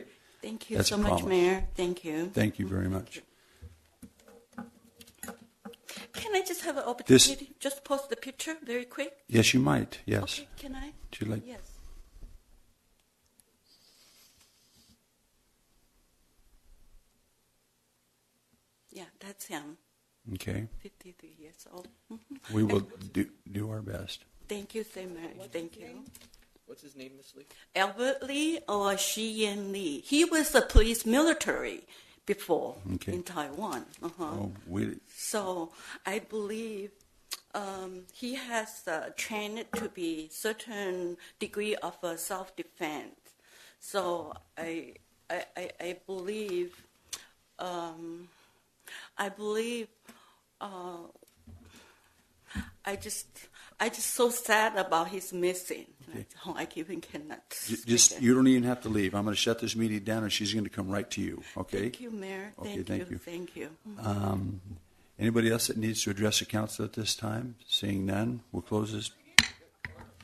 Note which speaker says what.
Speaker 1: Thank you
Speaker 2: That's
Speaker 1: so
Speaker 2: a
Speaker 1: much,
Speaker 2: promise.
Speaker 1: Mayor. Thank you.
Speaker 2: Thank you very much.
Speaker 1: Can I just have an opportunity? Just post the picture very quick?
Speaker 2: Yes, you might. Yes.
Speaker 1: Okay, can I?
Speaker 2: Would you like?
Speaker 1: Yes. Yeah, that's him,
Speaker 2: Okay.
Speaker 1: 53 years old. Mhm.
Speaker 2: We will do, do our best.
Speaker 1: Thank you so much. Thank you.
Speaker 3: What's his name, Miss Lee?
Speaker 1: Albert Lee or Xian Lee? He was a police military before
Speaker 2: Okay.
Speaker 1: in Taiwan. Uh-huh.
Speaker 2: Oh, we,
Speaker 1: So I believe um, he has uh, trained to be certain degree of uh, self-defense. So I, I, I, I believe, um, I believe, uh, I just, I just so sad about his missing. Oh, I even cannot.
Speaker 2: j-
Speaker 1: speak
Speaker 2: just,
Speaker 1: it.
Speaker 2: you don't even have to leave. I'm going to shut this meeting down and she's going to come right to you. Okay?
Speaker 1: Thank you, Mayor.
Speaker 2: Okay,
Speaker 1: Thank,
Speaker 2: thank
Speaker 1: you.
Speaker 2: you.
Speaker 1: Thank you.
Speaker 2: Um, anybody else that needs to address the council at this time? Seeing none, we'll close this